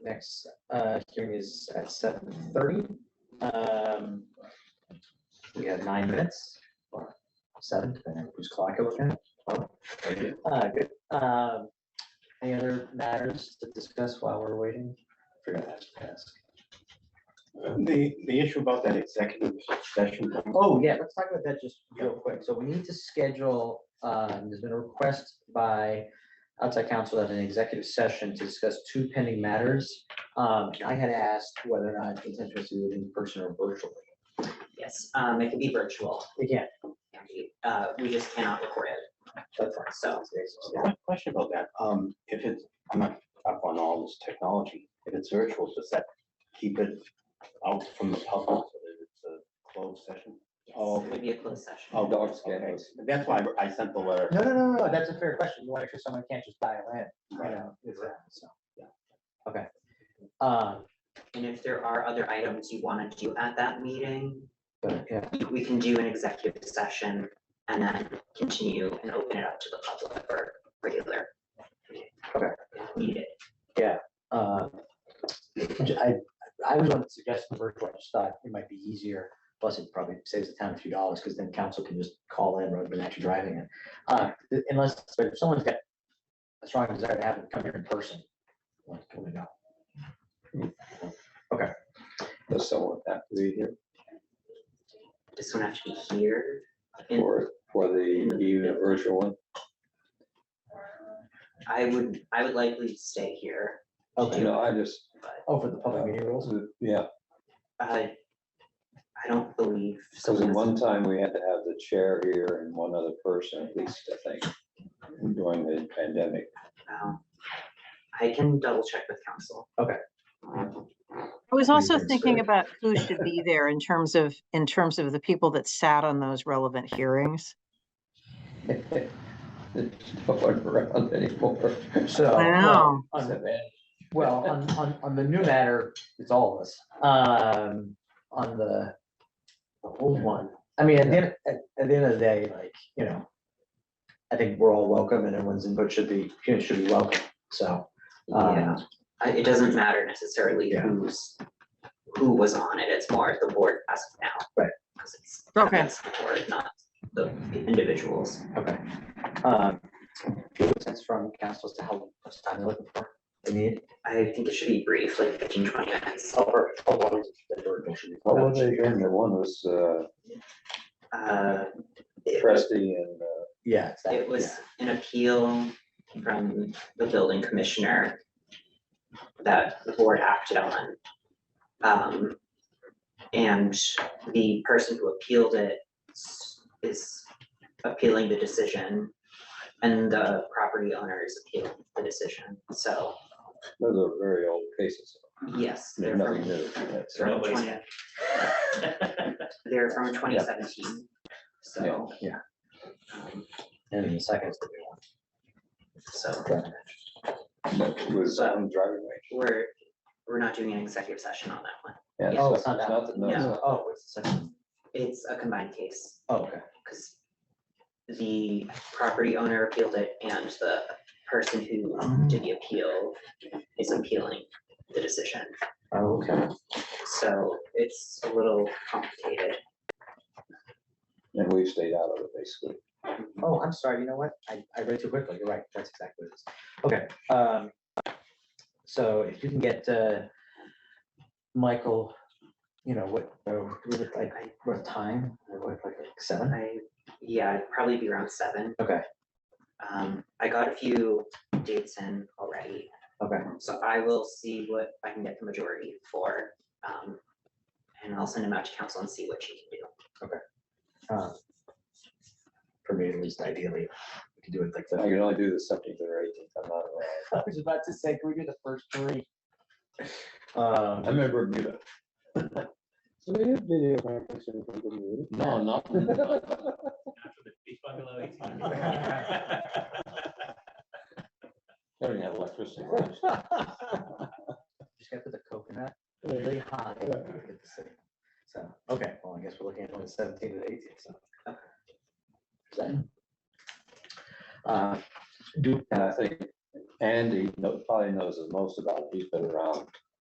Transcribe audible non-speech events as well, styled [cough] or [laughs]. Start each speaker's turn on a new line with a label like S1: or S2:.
S1: Next, uh, hearing is at seven thirty. Um, we have nine minutes or seven, depending on whose clock you're looking at. Uh, good. Um, any other matters to discuss while we're waiting? Forgot to ask.
S2: The, the issue about that executive session,
S1: Oh, yeah, let's talk about that just real quick. So we need to schedule, um, there's been a request by outside counsel at an executive session to discuss two pending matters. Um, I had asked whether or not it's interested to do it in person or virtually.
S3: Yes, um, it can be virtual.
S1: Again,
S3: Uh, we just cannot record it.
S1: that's fine.
S3: So,
S2: one question about that, um, if it's, I'm not up on all this technology, if it's virtual, does that keep it out from the public, so that it's a closed session?
S3: yes,
S2: Oh.
S3: it would be a closed session.
S2: Oh,
S4: Dark
S2: okay.
S4: skies.
S2: That's why I I sent the letter.
S1: No, no, no, no, that's a fair question. You want to make sure someone can't just buy a land, you
S2: Right.
S1: know, it's, uh, so, yeah. Okay. Um,
S3: And if there are other items you want to do at that meeting,
S1: but, yeah,
S3: we- we can do an executive session and then continue and open it up to the public for regular.
S1: Okay.
S3: Needed.
S1: uh, j- I, I was going to suggest the virtual, I just thought it might be easier. Plus, it probably saves the town a few dollars, because then council can just call in rather than actually driving it. Uh, unless, but if someone's got a strong desire to have them come here in person, like, can we know?
S4: Does someone have to be here
S3: Does someone have to be here? And
S4: for, for the even virtual one?
S3: I would, I would likely stay here,
S1: Okay,
S4: No, I just,
S1: oh, for the public meeting rules?
S4: yeah,
S3: but I don't believe.
S4: because
S3: someone
S4: at
S3: has-
S4: one time we had to have the chair here and one other person, at least, I think, during the pandemic.
S3: Um, I can double check with council.
S5: I was also
S1: Meetings,
S5: thinking
S1: right?
S5: about who should be there in terms of, in terms of the people that sat on those relevant hearings.
S4: There's No one around anymore.
S1: So.
S5: I know.
S1: on the- Well, on, on, on the new matter, it's all of us. Um, on the, the old one, I mean, at the, end- at, at the end of the day, like, you know, I think we're all welcome and everyone's input should be, you know, should be welcome, so. um,
S3: Yeah, I- Uh, it doesn't matter necessarily
S1: Yeah.
S3: who's, who was on it, it's more the board as of now.
S1: Right.
S3: 'Cause it's-
S5: Okay.
S3: that's the board, not the individuals.
S1: Okay. Um, do you have a sense from council as to how much time they're looking for? They need.
S3: I think it should be brief, like 15, 20 minutes.
S1: Or, or what is it that we're actually-
S4: What was it again? The one was uh,
S3: Uh, it-
S4: Trusty and, uh,
S1: Yeah. it's that,
S3: It
S1: yeah.
S3: was an appeal from the building commissioner that the board acted on. Um, And the person who appealed it s- is appealing the decision, and the property owner is appealing the decision. So,
S4: those are very old cases.
S3: yes, they're
S4: Nothing
S3: from,
S4: new. uh, That's
S3: they're
S4: right.
S3: from 20 they're from 2017, so.
S1: Yeah.
S3: um,
S1: And in the second.
S3: So
S4: That was on driving range.
S3: we're, we're not doing an executive session on that one.
S4: Yeah,
S1: Oh, it's not that.
S4: Nothing, no, it's
S3: Yeah.
S4: not.
S1: Oh, it's the second.
S3: It's a combined case.
S1: Oh, okay.
S3: because the property owner appealed it and the person who did the appeal is appealing the decision.
S1: Oh, okay.
S3: So it's a little complicated.
S4: And we've stayed out of it basically.
S1: Oh, I'm sorry, you know what? I, I read too quickly. You're right. That's exactly what it is. Okay, um, so if you can get, uh, Michael, you know, what, uh, we look like,
S3: I,
S1: what time? Like, what, like, like Seven?
S3: I, yeah, it'd probably be around seven.
S1: Okay.
S3: Um, I got a few dates in already,
S1: Okay,
S3: so I will see what I can get the majority for. Um, and I'll send them out to council and see what she can do.
S1: um, for me at least ideally, we could do it like
S4: I
S1: that.
S4: can only do the seventeenth or eighteenth, I'm not around.
S1: I was about to say, can we do the first three? Um,
S4: remember Bermuda.
S6: So we did video conferencing from Bermuda. [laughs]
S4: No, not. [laughs] They don't have electricity.
S6: [laughs]
S1: just gotta put the coconut
S6: Yeah.
S1: really high.
S6: Yeah.
S1: to get the signal. So, okay, well, I guess we're looking at only seventeen to eighteen, so. Is that- Uh, Do,
S4: And I think Andy, no- probably Tim knows the most about it. He's been around